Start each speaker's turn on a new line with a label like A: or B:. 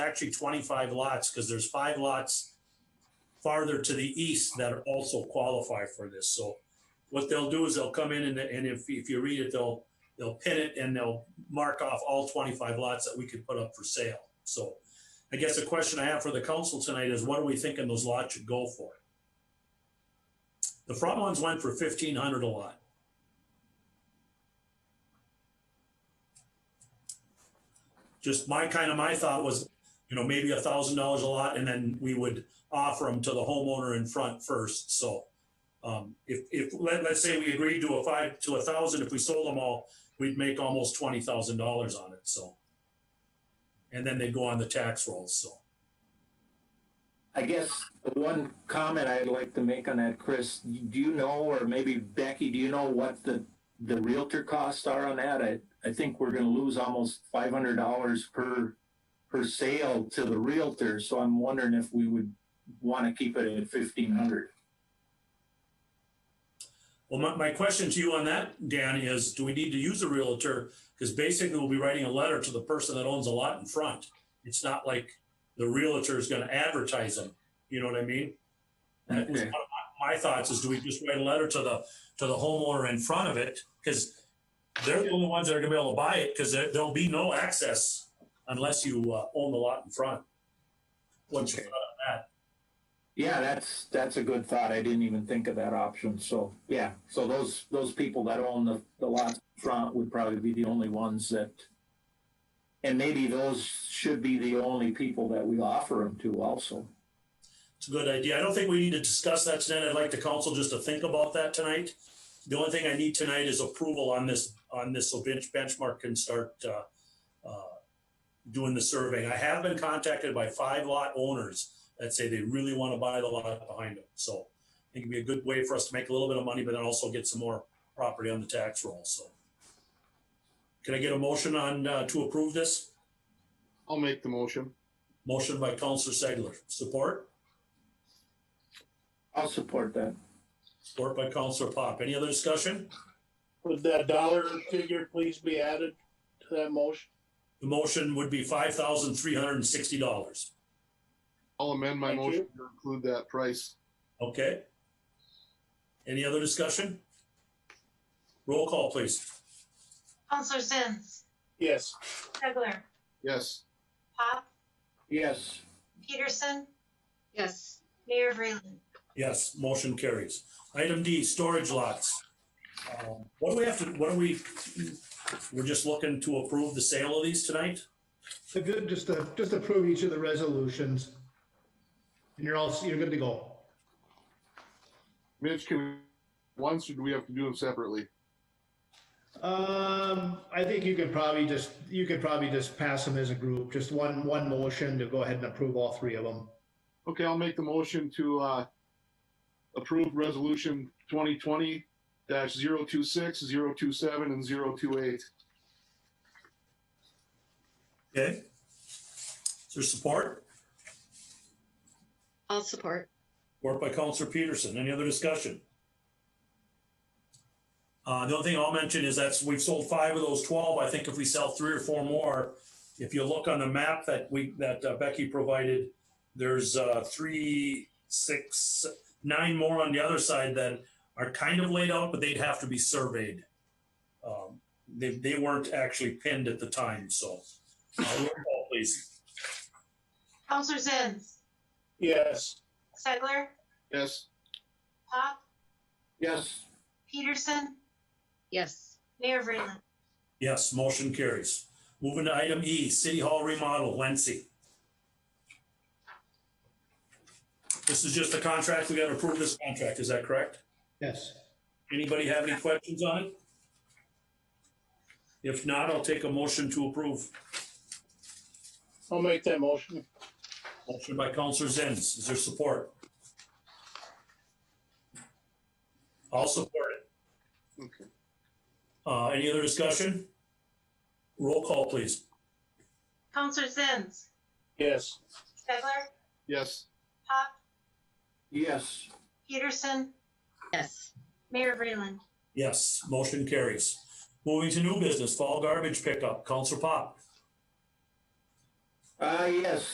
A: actually twenty-five lots, because there's five lots farther to the east that are also qualify for this, so what they'll do is they'll come in and, and if, if you read it, they'll, they'll pin it and they'll mark off all twenty-five lots that we could put up for sale, so. I guess the question I have for the council tonight is what are we thinking those lots should go for? The front ones went for fifteen hundred a lot. Just my, kind of my thought was, you know, maybe a thousand dollars a lot and then we would offer them to the homeowner in front first, so. Um, if, if, let, let's say we agreed to a five, to a thousand, if we sold them all, we'd make almost twenty thousand dollars on it, so. And then they'd go on the tax rolls, so.
B: I guess the one comment I'd like to make on that, Chris, do you know, or maybe Becky, do you know what the, the realtor costs are on that? I, I think we're gonna lose almost five hundred dollars per, per sale to the realtor, so I'm wondering if we would wanna keep it at fifteen hundred.
A: Well, my, my question to you on that, Dan, is do we need to use a realtor? Because basically we'll be writing a letter to the person that owns a lot in front. It's not like the realtor is gonna advertise them, you know what I mean? That was
B: Okay.
A: one of my, my thoughts is do we just write a letter to the, to the homeowner in front of it? Because they're the only ones that are gonna be able to buy it, because there, there'll be no access unless you, uh, own the lot in front. What's your
B: Okay.
A: thought on that?
B: Yeah, that's, that's a good thought. I didn't even think of that option, so, yeah. So those, those people that own the, the lot front would probably be the only ones that, and maybe those should be the only people that we offer them to also.
A: It's a good idea. I don't think we need to discuss that tonight. I'd like the council just to think about that tonight. The only thing I need tonight is approval on this, on this, so bench, benchmark can start, uh, uh, doing the survey. I have been contacted by five lot owners that say they really want to buy the lot behind them, so I think it'd be a good way for us to make a little bit of money, but then also get some more property on the tax roll, so. Can I get a motion on, uh, to approve this?
C: I'll make the motion.
A: Motion by Counselor Segler. Support?
B: I'll support that.
A: Support by Counselor Pop. Any other discussion?
D: Would that dollar figure please be added to that motion?
A: The motion would be five thousand three hundred and sixty dollars,
C: I'll amend my
D: Thank
C: motion to include that price.
A: okay? Any other discussion? Roll call, please.
E: Counselor Zins,
D: Yes.
E: Segler,
C: Yes,
E: Pop,
B: Yes,
E: Peterson,
F: Yes,
E: Mayor Vreeland.
A: Yes, motion carries. Item D, storage lots. Um, What do we have to, what are we, we're just looking to approve the sale of these tonight?
G: If you just, uh, just approve each of the resolutions. And you're all, you're good to go.
C: Mitch, can we, once or do we have to do them separately?
G: Um, I think you could probably just, you could probably just pass them as a group, just one, one motion to go ahead and approve all three of them.
C: Okay, I'll make the motion to, uh, approve resolution twenty twenty dash zero two six, zero two seven, and zero two eight.
A: Okay? Is there support?
F: I'll support.
A: Work by Counselor Peterson. Any other discussion? Uh, the only thing I'll mention is that's, we've sold five of those twelve. I think if we sell three or four more, if you look on the map that we, that uh, Becky provided, there's, uh, three, six, nine more on the other side that are kind of laid out, but they'd have to be surveyed. Um, they, they weren't actually pinned at the time, so. Uh, roll call, please.
E: Counselor Zins,
D: Yes.
E: Segler,
C: Yes,
E: Pop,
B: yes,
E: Peterson,
F: Yes,
E: Mayor Vreeland.
A: Yes, motion carries. Moving to item E, City Hall remodel, Wency. This is just a contract, we gotta approve this contract, is that correct?
G: Yes.
A: Anybody have any questions on it? If not, I'll take a motion to approve.
D: I'll make that motion.
A: Motion by Counselor Zins, is there support? I'll support it.
C: okay.
A: Uh, any other discussion? Roll call, please.
E: Counselor Zins,
D: Yes.
E: Segler,
C: Yes,
E: Pop,
B: yes,
E: Peterson,
F: yes,
E: Mayor Vreeland.
A: Yes, motion carries. Moving to new business, fall garbage pickup, Counselor Pop.
B: uh, yes.